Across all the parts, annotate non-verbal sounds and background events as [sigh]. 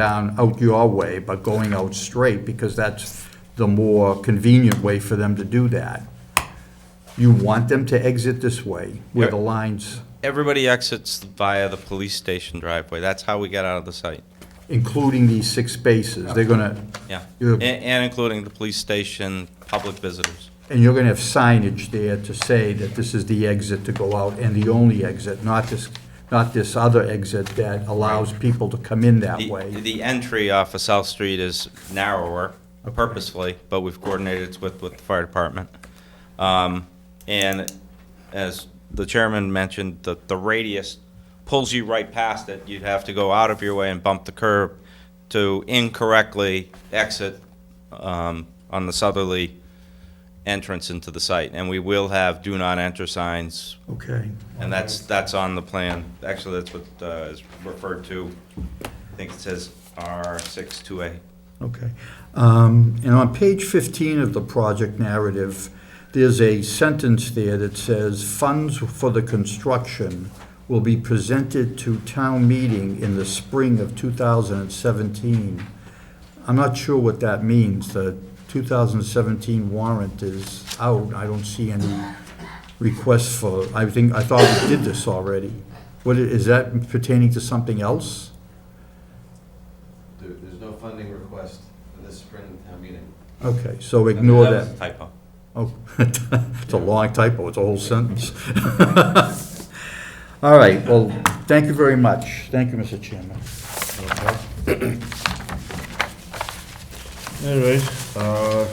down out your way, but going out straight, because that's the more convenient way for them to do that. You want them to exit this way, where the lines, Everybody exits via the police station driveway. That's how we get out of the site. including these six spaces, they're gonna, Yeah. Yeah. And, and including the police station, public visitors. and you're gonna have signage there to say that this is the exit to go out and the only exit, not this, not this other exit that allows people to come in that The, way. the entry off of South Street is narrower purposefully, but we've coordinated with, with the fire department. Um, and as the chairman mentioned, the, the radius pulls you right past it. You'd have to go out of your way and bump the curb to incorrectly exit, um, on the southerly entrance into the site. And we will have do not enter signs Okay. and that's, that's on the plan. Actually, that's what uh, is referred to, I think it says R62A. Okay. Um, And on page 15 of the project narrative, there's a sentence there that says, "Funds for the construction will be presented to town meeting in the spring of 2017." I'm not sure what that means. The 2017 warrant is out. I don't see any requests for, I think, I thought we did this already. What, i- is that pertaining to something else? There, there's no funding request for this spring town meeting. Okay, so ignore that. was a Typo. Oh, [laughs] it's a long typo, it's a whole sentence. [laughs] All right, well, thank you very much. Thank you, Mr. Chairman. All right. uh,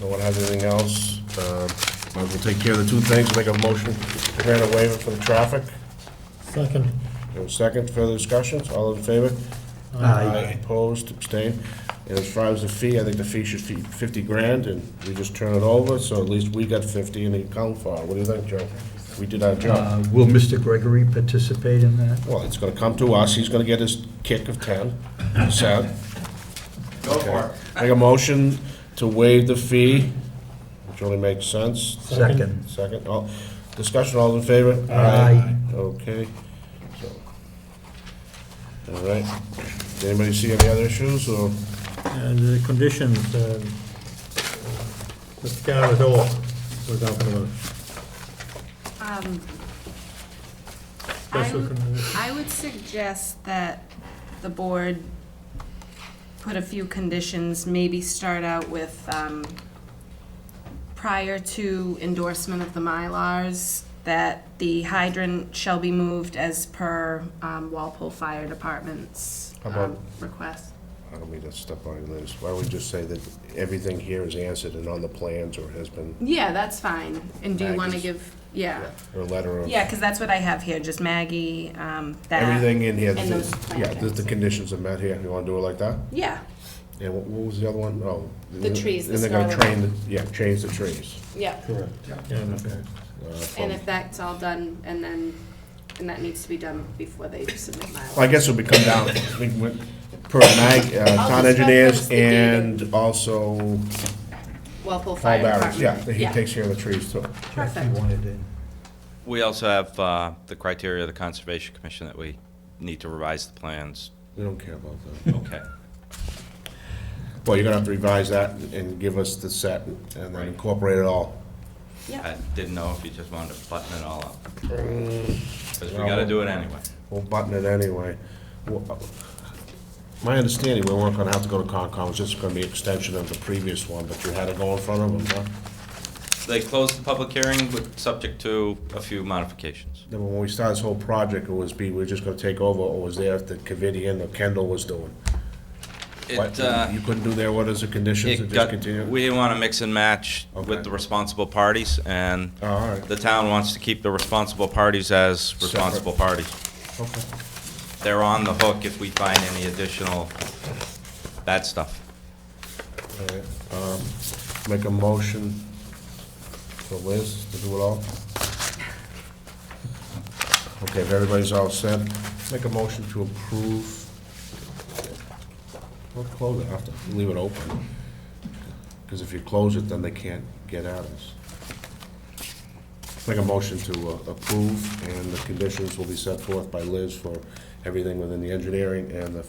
No one has anything else? Uh, Might as well take care of the two things, make a motion, to grant a waiver for the traffic. Second. And a second, further discussions, all in favor? Opposed, abstained. And as far as the fee, I think the fee should be 50 grand, and we just turn it over, so at least we got 50 and it count for. it. What do you think, Joe? We did our job. Uh, Will Mr. Gregory participate in that? Well, it's gonna come to us, he's gonna get his kick of 10, Sad. Go for Make a motion to waive the fee, which only makes sense. Second. Second, all, discussion, all in favor? Aye. Okay, so. All right, Does anybody see any other issues, or, And the conditions, um, the scar is all, we're talking about. Um, I Special would- condition. I would suggest that the board put a few conditions, maybe start out with, um, prior to endorsement of the Mylars, that the hydrant shall be moved as per um, Walpole Fire Department's How about- um, request. I don't mean to step on your this, why don't we just say that everything here is answered and on the plans, or has been, Yeah, that's fine. And do you want to Maggie's- give, yeah. or a letter of. Yeah, because that's what I have here, just Maggie, um, that. Everything in here, And those is- yeah, the, the conditions are met here, you wanna do it like that? Yeah, Yeah, what, what was the other one? Oh. The trees, the And they're gonna scarlet. train, the- yeah, change the trees. yeah. uh, And from- if that's all done, and then, and that needs to be done before they submit Well, I my. guess it'll be come down, I think, with- per Mag, uh, town just reference engineers the data. and also Walpole Paul Fire Barron, Department. yeah, he takes care of the trees too. Perfect, We also have uh, the criteria of the Conservation Commission that we need to revise the plans. We don't care about that. Okay. [laughs] Well, you're gonna have to revise that and give us the set and then Right. incorporate it all. I yeah, didn't know if you just wanted to button it all up. Because we gotta do it anyway. We'll button it anyway. Well, uh, My understanding, we weren't gonna have to go to Concom, it's just gonna be extension of the previous one, but you had to go in front of them, huh? They closed the public hearing with, subject to a few modifications. Then when we started this whole project, it was be, we're just gonna take over, or was there if the Covidian or Kendall was doing? It, What, uh, You couldn't do their orders of conditions it and just got, continue? we didn't wanna mix and match Okay. with the responsible parties, and Oh, all right. the town wants to keep the responsible parties as responsible parties. Okay. they're on the hook if we find any additional bad stuff. All right. Um, Make a motion for Liz to do it all? Okay, if everybody's all set, make a motion to approve. We'll close it after, leave it open. Because if you close it, then they can't get at us. Make a motion to uh, approve, and the conditions will be set forth by Liz for everything within the engineering and the